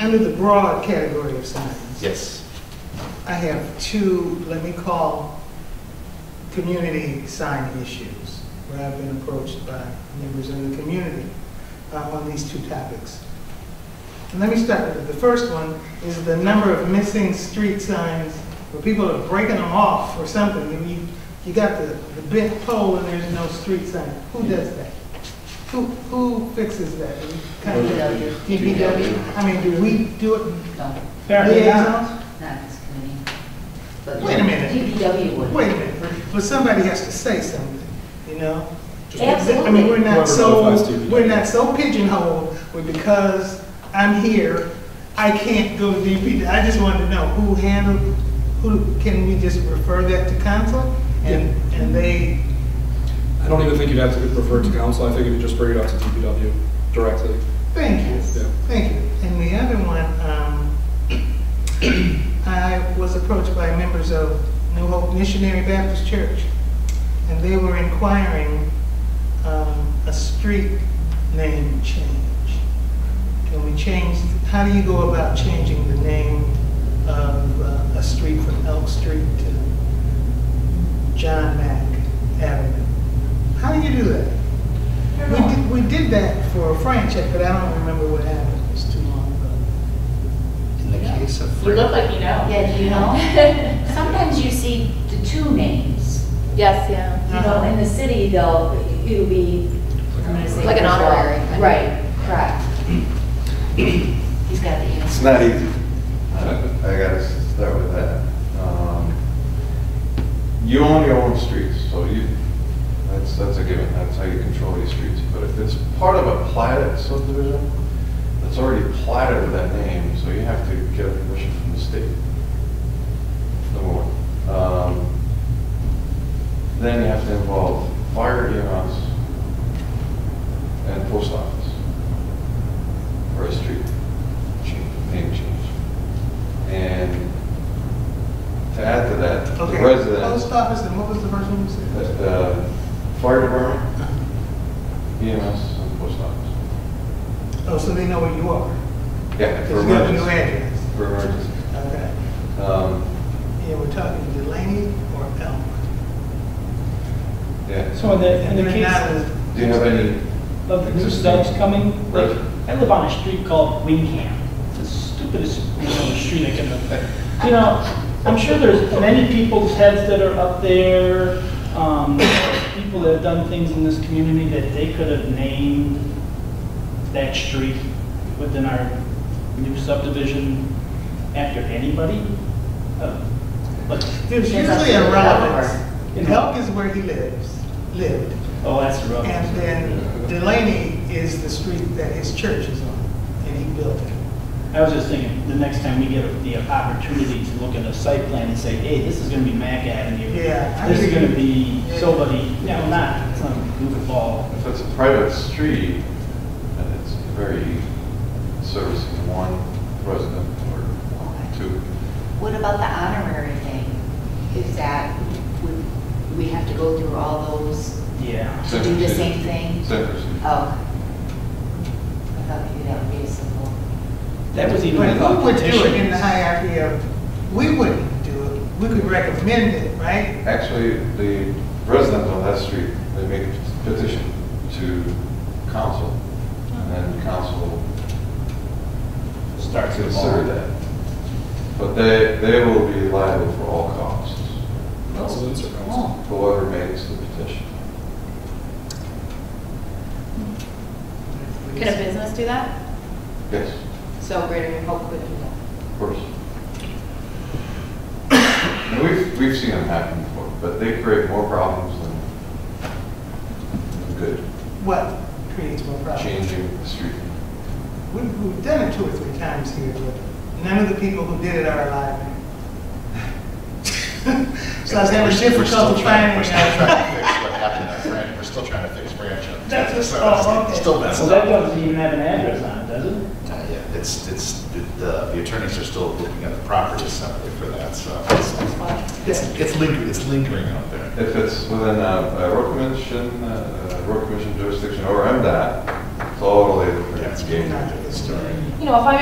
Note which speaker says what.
Speaker 1: Under the broad category of signs,
Speaker 2: Yes.
Speaker 1: I have two, let me call, community sign issues, where I've been approached by members of the community uh, on these two topics. And let me start with, it. the first one is the number of missing street signs, where people are breaking them off or something, and you, you got the, the bent pole and there's no street sign. Who does that? Who, who fixes that? Do we Contact the DPW? I mean, do we do it?
Speaker 3: No,
Speaker 1: Liaisons?
Speaker 3: not this committee. But
Speaker 1: Wait a minute.
Speaker 3: DPW would.
Speaker 1: Wait a minute, but somebody has to say something, you know? I mean, we're
Speaker 3: Absolutely.
Speaker 1: not
Speaker 4: Whoever
Speaker 1: so,
Speaker 4: notifies DPW.
Speaker 1: we're not so pigeonholed, but because I'm here, I can't go to DPW. I just wanted to know who handled, who, can we just refer that to council? And, and they,
Speaker 4: I don't even think you'd have to refer it to council, I think you could just bring it up to DPW directly.
Speaker 1: thank you,
Speaker 4: Yeah.
Speaker 1: thank you. And the other one, um, I was approached by members of New Hope Missionary Baptist Church, and they were inquiring um, a street name change. Can we change, how do you go about changing the name of uh, a street from Elk Street to John Mack Avenue? How do you do that? We did, we did that for a frank check, but I don't remember what happened, it was too long ago.
Speaker 2: In the case of
Speaker 5: You look
Speaker 2: Frank,
Speaker 5: like you know.
Speaker 3: Yeah, do you know? Sometimes you see the two names,
Speaker 5: Yes, yeah.
Speaker 3: you know, in the city though, it'll be, I'm gonna say.
Speaker 5: Like an honorary kind of-
Speaker 3: Right, correct. He's got the
Speaker 6: It's
Speaker 3: answer.
Speaker 6: not easy. I gotta start with that. Um, You own your own streets, so you, that's, that's a given, that's how you control your streets. But if it's part of a platted subdivision, it's already platted with that name, so you have to get a permission from the state. Number one. Um, Then you have to involve fire departments and post office for a street change, name change. And to add to that, the
Speaker 1: Okay,
Speaker 6: resident,
Speaker 1: Post office, and what was the first one you said?
Speaker 6: the uh, fire department, EMS, and post office.
Speaker 1: Oh, so they know where you are?
Speaker 6: Yeah, for
Speaker 1: Because you have a new
Speaker 6: emergency.
Speaker 1: address.
Speaker 6: For emergency.
Speaker 1: Okay.
Speaker 6: Um,
Speaker 1: Yeah, we're talking Delaney or Elm.
Speaker 6: Yeah.
Speaker 7: So in the, in the
Speaker 1: They're not
Speaker 7: case
Speaker 1: as-
Speaker 6: Do you have any,
Speaker 7: of the new subs coming, like, I live on a street called Wingham. It's the stupidest name of street I can, you know, I'm sure there's many people's heads that are up there, um, people that have done things in this community that they could have named that street within our new subdivision after anybody. Uh, But,
Speaker 1: There's
Speaker 3: Depends on
Speaker 1: usually
Speaker 3: who
Speaker 1: a
Speaker 3: you're
Speaker 1: relevance.
Speaker 7: for.
Speaker 1: Elk is where he lives, lived,
Speaker 7: oh, that's rough.
Speaker 1: and then Delaney is the street that his church is on, and he built it.
Speaker 7: I was just thinking, the next time we get the opportunity to look at a site plan and say, hey, this is gonna be Mac Avenue.
Speaker 1: Yeah, I
Speaker 7: This is
Speaker 1: agree.
Speaker 7: gonna be somebody, no, not, it's not goofball.
Speaker 6: if it's a private street, then it's very servicing one resident or two.
Speaker 3: What about the honorary thing? Is that, would, we have to go through all those
Speaker 7: Yeah.
Speaker 3: to do the same thing?
Speaker 6: Same procedure.
Speaker 3: Oh. I thought maybe that would be a simple.
Speaker 7: That was even
Speaker 1: But
Speaker 7: a
Speaker 1: who would do it in
Speaker 7: competition.
Speaker 1: the hierarchy of, we wouldn't do it, we could recommend it, right?
Speaker 6: Actually, the residents on that street, they make a petition to council, and then council
Speaker 7: Starts with
Speaker 6: consider
Speaker 7: all.
Speaker 6: that. But they, they will be liable for all costs,
Speaker 4: Residents or council?
Speaker 1: Oh,
Speaker 6: whoever makes the petition.
Speaker 5: Could a business do that?
Speaker 6: Yes,
Speaker 5: So Greater New Hope could do that.
Speaker 6: of course. And we've, we've seen them happen before, but they create more problems than than good,
Speaker 1: What creates more problems?
Speaker 6: changing the street.
Speaker 1: We- We've done it two or three times here, but none of the people who did it are alive. So I was having
Speaker 8: We're still
Speaker 1: difficulty
Speaker 8: trying-
Speaker 1: finding
Speaker 8: We're still trying
Speaker 1: out.
Speaker 8: to fix what happened at Branch, we're still trying to fix Branch. up.
Speaker 1: That's what-
Speaker 8: So
Speaker 1: oh,
Speaker 8: it's
Speaker 1: okay.
Speaker 8: Still
Speaker 7: So
Speaker 8: messed
Speaker 7: that
Speaker 8: up.
Speaker 7: doesn't even have an address on it, does it?
Speaker 8: Uh, yeah, It's, it's, the, the attorneys are still looking at the property separately for that, so it's- it's, it's lingering, it's lingering out there.
Speaker 6: If it's within a a road commission, uh, road commission jurisdiction or MDOT, it's all related.
Speaker 8: Yeah, it's getting out of the story.
Speaker 5: You know, if I